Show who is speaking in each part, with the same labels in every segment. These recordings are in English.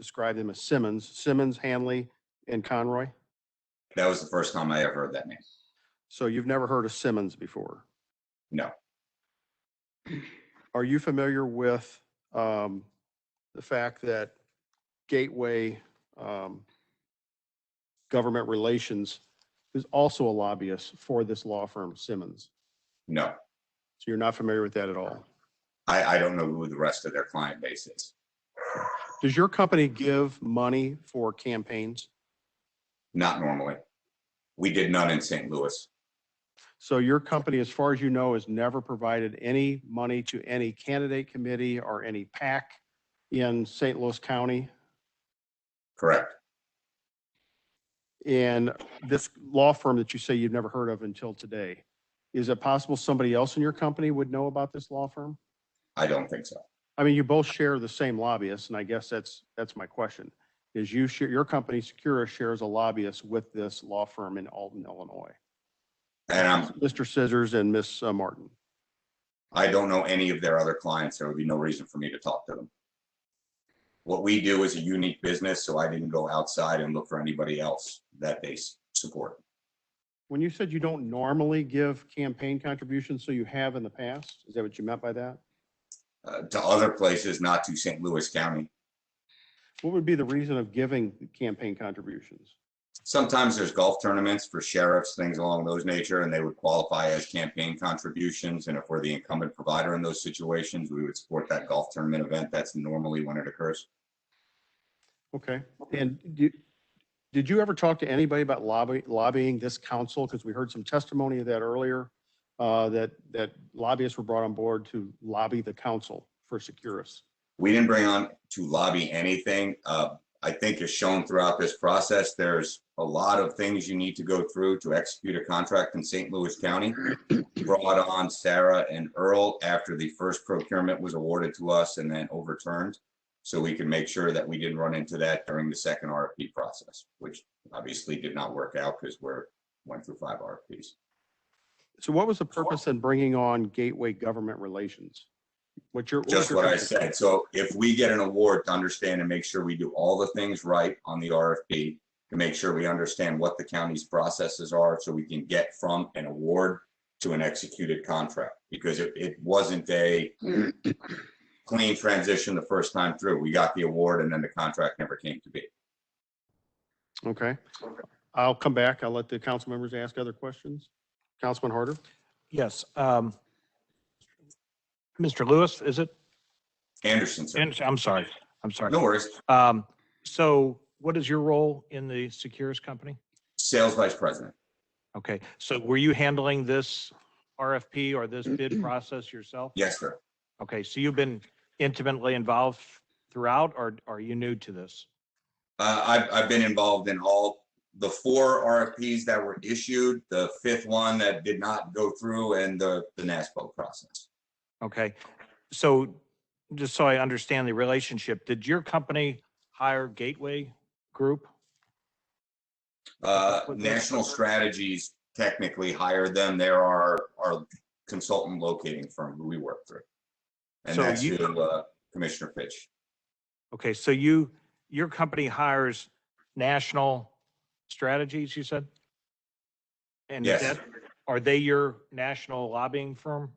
Speaker 1: described them as Simmons, Simmons, Hanley, and Conroy.
Speaker 2: That was the first time I ever heard that name.
Speaker 1: So you've never heard of Simmons before?
Speaker 2: No.
Speaker 1: Are you familiar with um, the fact that Gateway um, Government Relations is also a lobbyist for this law firm Simmons?
Speaker 2: No,
Speaker 1: So you're not familiar with that at all?
Speaker 2: I, I don't know who the rest of their client base is.
Speaker 1: Does your company give money for campaigns?
Speaker 2: Not normally. We did none in St. Louis.
Speaker 1: So your company, as far as you know, has never provided any money to any candidate committee or any PAC in St. Louis County?
Speaker 2: Correct.
Speaker 1: And this law firm that you say you've never heard of until today, is it possible somebody else in your company would know about this law firm?
Speaker 2: I don't think so.
Speaker 1: I mean, you both share the same lobbyist, and I guess that's, that's my question. Is you, share- your company, Secura, shares a lobbyist with this law firm in Alton, Illinois?
Speaker 2: And I'm,
Speaker 1: Mr. Scissors and Miss uh, Martin.
Speaker 2: I don't know any of their other clients. There would be no reason for me to talk to them. What we do is a unique business, so I didn't go outside and look for anybody else that they s- support.
Speaker 1: When you said you don't normally give campaign contributions, so you have in the past, is that what you meant by that?
Speaker 2: Uh, to other places, not to St. Louis County.
Speaker 1: What would be the reason of giving campaign contributions?
Speaker 2: Sometimes there's golf tournaments for sheriffs, things along those nature, and they would qualify as campaign contributions. And if we're the incumbent provider in those situations, we would support that golf tournament event. That's normally when it occurs.
Speaker 1: Okay, and did, did you ever talk to anybody about lobby, lobbying this council? Because we heard some testimony of that earlier, uh, that, that lobbyists were brought on board to lobby the council for Securus.
Speaker 2: We didn't bring on to lobby anything. Uh, I think as shown throughout this process, there's a lot of things you need to go through to execute a contract in St. Louis County. Brought on Sarah and Earl after the first procurement was awarded to us and then overturned. So we can make sure that we didn't run into that during the second RFP process, which obviously did not work out because we're, went through five RFPs.
Speaker 1: So what was the purpose in bringing on Gateway Government Relations? What's your?
Speaker 2: Just
Speaker 1: your
Speaker 2: what I
Speaker 1: company-
Speaker 2: said. So if we get an award to understand and make sure we do all the things right on the RFP, to make sure we understand what the county's processes are, so we can get from an award to an executed contract, because it, it wasn't a clean transition the first time through. We got the award and then the contract never came to be.
Speaker 1: Okay, I'll come back. I'll let the council members ask other questions. Councilman Harder?
Speaker 3: Yes. um, Mr. Lewis, is it?
Speaker 2: Anderson, sir.
Speaker 3: And I'm sorry. I'm sorry.
Speaker 2: No worries.
Speaker 3: Um, So what is your role in the Securus company?
Speaker 2: Sales Vice President.
Speaker 3: Okay, so were you handling this RFP or this bid process yourself?
Speaker 2: Yes, sir.
Speaker 3: Okay, so you've been intimately involved throughout or are you new to this?
Speaker 2: Uh, I've, I've been involved in all the four RFPs that were issued, the fifth one that did not go through, and the, the NASPO process.
Speaker 3: Okay, so just so I understand the relationship, did your company hire Gateway Group?
Speaker 2: Uh, National Strategies technically hired them. They're our, our consultant locating firm who we work through. And
Speaker 3: So
Speaker 2: that's
Speaker 3: you-
Speaker 2: who, uh, Commissioner Fitch.
Speaker 3: Okay, so you, your company hires national strategies, you said? And
Speaker 2: Yes.
Speaker 3: that, are they your national lobbying firm?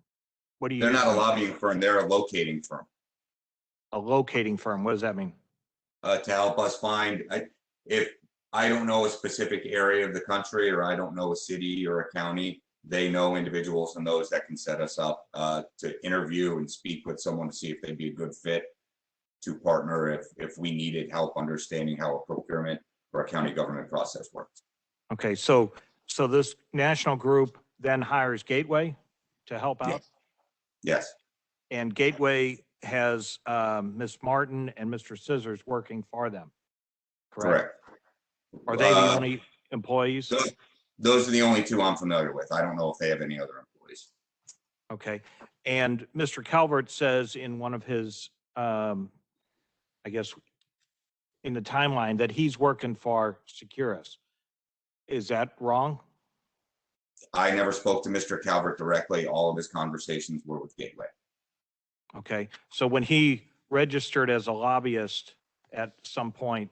Speaker 3: What do you?
Speaker 2: They're not a
Speaker 3: use?
Speaker 2: lobbying firm, they're a locating firm.
Speaker 3: A locating firm, what does that mean?
Speaker 2: uh, to help us find, I, if I don't know a specific area of the country, or I don't know a city or a county, they know individuals and those that can set us up, uh, to interview and speak with someone to see if they'd be a good fit to partner if, if we needed help understanding how a procurement or a county government process works.
Speaker 3: Okay, so, so this national group then hires Gateway to help
Speaker 2: Yeah.
Speaker 3: out?
Speaker 2: Yes,
Speaker 3: And Gateway has um, Ms. Martin and Mr. Scissors working for them, correct?
Speaker 2: correct.
Speaker 3: Are they the
Speaker 2: Uh,
Speaker 3: only employees?
Speaker 2: those- Those are the only two I'm familiar with. I don't know if they have any other employees.
Speaker 3: Okay, and Mr. Calvert says in one of his, um, I guess, in the timeline that he's working for Securus. Is that wrong?
Speaker 2: I never spoke to Mr. Calvert directly. All of his conversations were with Gateway.
Speaker 3: Okay, so when he registered as a lobbyist at some point